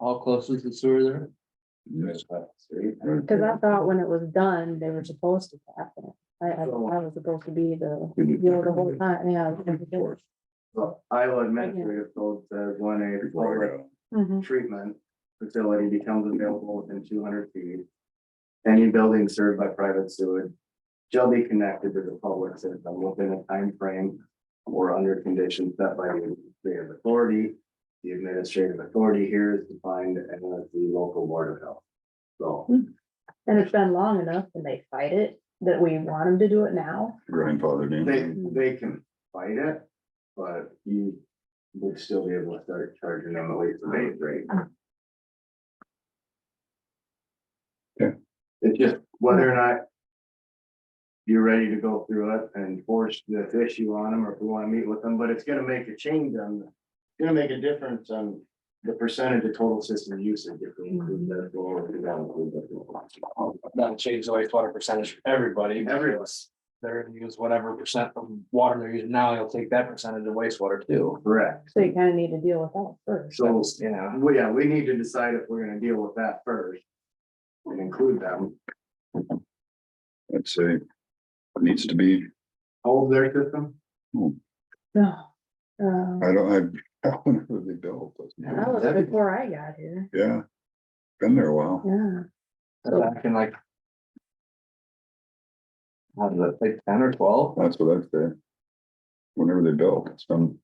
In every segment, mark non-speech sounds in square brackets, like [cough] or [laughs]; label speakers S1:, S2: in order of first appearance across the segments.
S1: close is the sewer there?
S2: mm,
S3: Cause Oh, I thought when it was done, they were supposed to tap it. I, I I was supposed to be the, you know, the whole time, yeah.
S2: Well, Iowa Administrative Code says when a public
S3: Mhm.
S2: treatment facility becomes available within two hundred feet. Any building served by private sewage shall be connected to the public system within a time frame or under conditions set by the administrative authority. The administrative authority here is defined as the local board of health. So
S3: And it's been long enough and they fight it, that we want them to do it now.
S4: grandfathered
S2: they,
S4: in.
S2: they can fight it, but you would still be able to start charging them at least the base rate.
S4: Yeah.
S2: It's just whether or not you're ready to go through it and force this issue on them, or if we wanna meet with them, but it's gonna make a change on, it's gonna make a difference on the percentage of total system usage if we include that goal or if we don't include that.
S1: That'll change the wastewater percentage for everybody.
S2: Everyone.
S1: because They're gonna use whatever percent of water they're using now, they'll take that percentage of wastewater too.
S2: Correct,
S3: So you kinda need to deal with that first. [sighs]
S2: so.
S1: Yeah,
S2: Well, yeah, we need to decide if we're gonna deal with that first. And include them,
S4: I'd say it needs to be,
S2: hold their system.
S3: No. Um,
S4: I don't, [laughs] I, whenever they built, those.
S3: that was
S2: That'd be-
S3: before I got here,
S4: yeah. Been there a while.
S3: yeah.
S1: back in like. How did that, like ten or twelve?
S4: That's what I'd say. Whenever they built, it's been.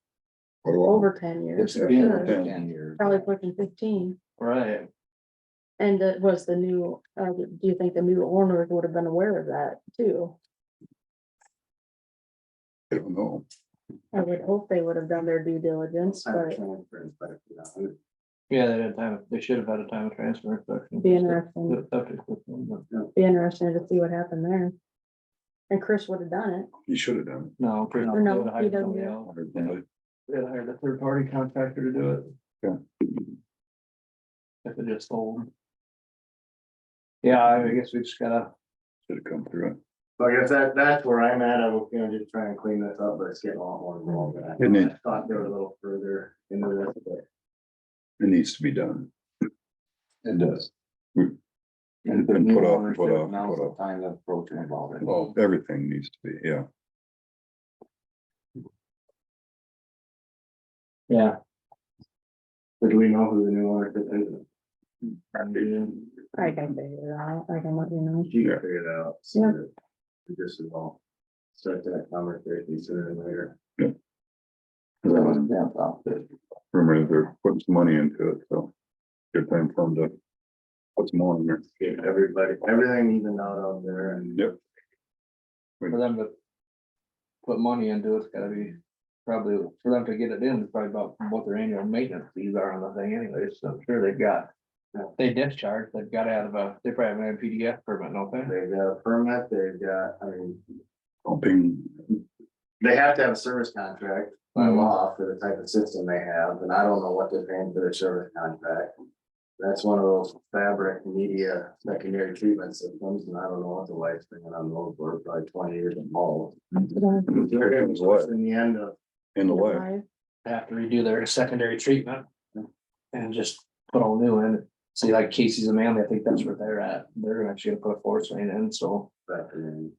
S4: quite a while.
S3: Over ten years,
S1: It's
S4: Yeah.
S1: been
S3: Sure.
S1: like ten years.
S3: probably pushing fifteen.
S1: Right,
S3: And that was the new, uh, do you think the new owners would have been aware of that too?
S4: I don't know.
S3: I would hope they would have done their due diligence,
S2: Time
S3: but
S2: of transfer and stuff, you know,
S1: yeah, they didn't have, they should have had a time of transfer. inspection.
S3: be interesting.
S1: The septic system, but
S3: Be interesting to see what happened there. And Chris would have done it.
S4: You should have done.
S1: No, Chris.
S3: Or no,
S1: they hired
S3: PW.
S1: somebody else.
S4: it.
S1: They had hired a third party contractor to do it.
S4: Yeah.
S1: If it just sold. Yeah, I guess we just gotta,
S4: Should have come through it.
S2: So I guess that, that's where I'm at, I'm gonna just try and clean this up, but it's getting a lot more involved. than I
S4: It needs-
S2: Thought they were a little further into this, but.
S4: It needs to be done.
S5: It does.
S4: It's
S5: The
S4: been
S5: new
S4: put off,
S5: owners
S4: put Oh.
S5: didn't
S4: off,
S5: announce
S4: put
S5: the
S4: off.
S5: Time the approach involved. in it.
S4: Well, everything needs to be, yeah.
S1: yeah.
S2: but do we know who the new owner is?
S3: I can figure it out. I can let you know.
S2: You can figure it out.
S3: Yeah.
S2: Just as well. Start that conversation sooner than later. Um,
S5: Cause I wasn't down south, but
S4: Remember, they're putting some money into it, so. Good time for them to. Put some more in there.
S2: Get everybody, everything even out of there and.
S4: Yep.
S1: For them to. Put money into it, it's gotta be probably, for them to get it in, it's probably about what their annual maintenance fees are on the thing anyways, so I'm sure they've got. They discharge, they've got out of a, they probably have an PDF permit, don't they?
S2: They've got a permit, they've got, I mean,
S4: Pumping,
S2: they have to have a service contract by
S6: Hmm.
S1: Mhm.
S2: law for the type of system they have, and I don't know what they're paying for their service contract. That's one of those fabric media secondary treatment systems, and I don't know what the lifespan on those were, probably twenty years involved.
S6: Hmm,
S2: They're gonna be
S4: What?
S2: pushing the end of,
S4: in the way,
S1: have to redo their secondary treatment. And just put all new in, see like Casey's a man, I think that's where they're at, they're actually gonna put a force main in, so.
S2: that, and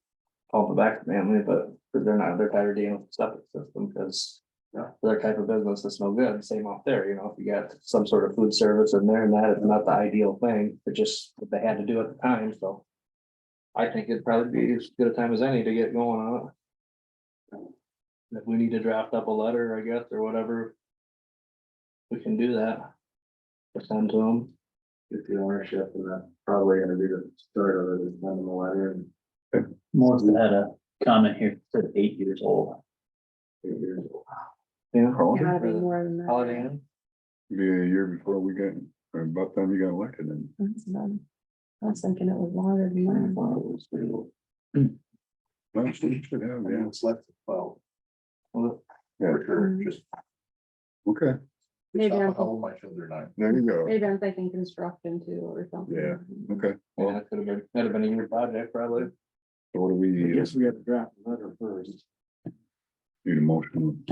S1: Call the back family, but but they're not, they're tired of dealing with septic system, because.
S2: Yeah.
S1: Their type of business is no good, same off there, you know, if you got some sort of food service in there and that is not the ideal thing, but just what they had to do at the time, so. I think it'd probably be as good a time as any to get going on it. If we need to draft up a letter, I guess, or whatever. We can do that. to Send to them.
S2: get the ownership, and that's probably gonna be the start of it, is sending a letter and
S6: Melissa had a comment here, said eight years old.
S2: eight years old.
S1: Yeah.
S4: probably
S3: Gotta be more than
S1: Holiday
S3: that.
S1: Inn.
S4: be a year before we got, or about time you got elected and.
S3: That's about- I was thinking it was longer than
S5: I
S3: that.
S5: thought it was pretty old.
S4: Well, you should have, yeah,
S5: It's left, well,
S1: Well,
S4: yeah,
S5: for sure, just.
S4: okay,
S3: Mm-hmm. Maybe I'm,
S5: How my children are.
S4: there you go,
S3: maybe I'm thinking construction too or something.
S4: Yeah. okay,
S1: Yeah, that could have been, that'd have been a year project probably.
S4: so what do we
S5: I
S4: need?
S5: guess we have to draft a letter first.
S4: Need a motion,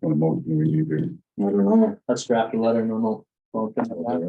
S4: what motion we need here?
S1: Let's draft a letter and then we'll. we'll-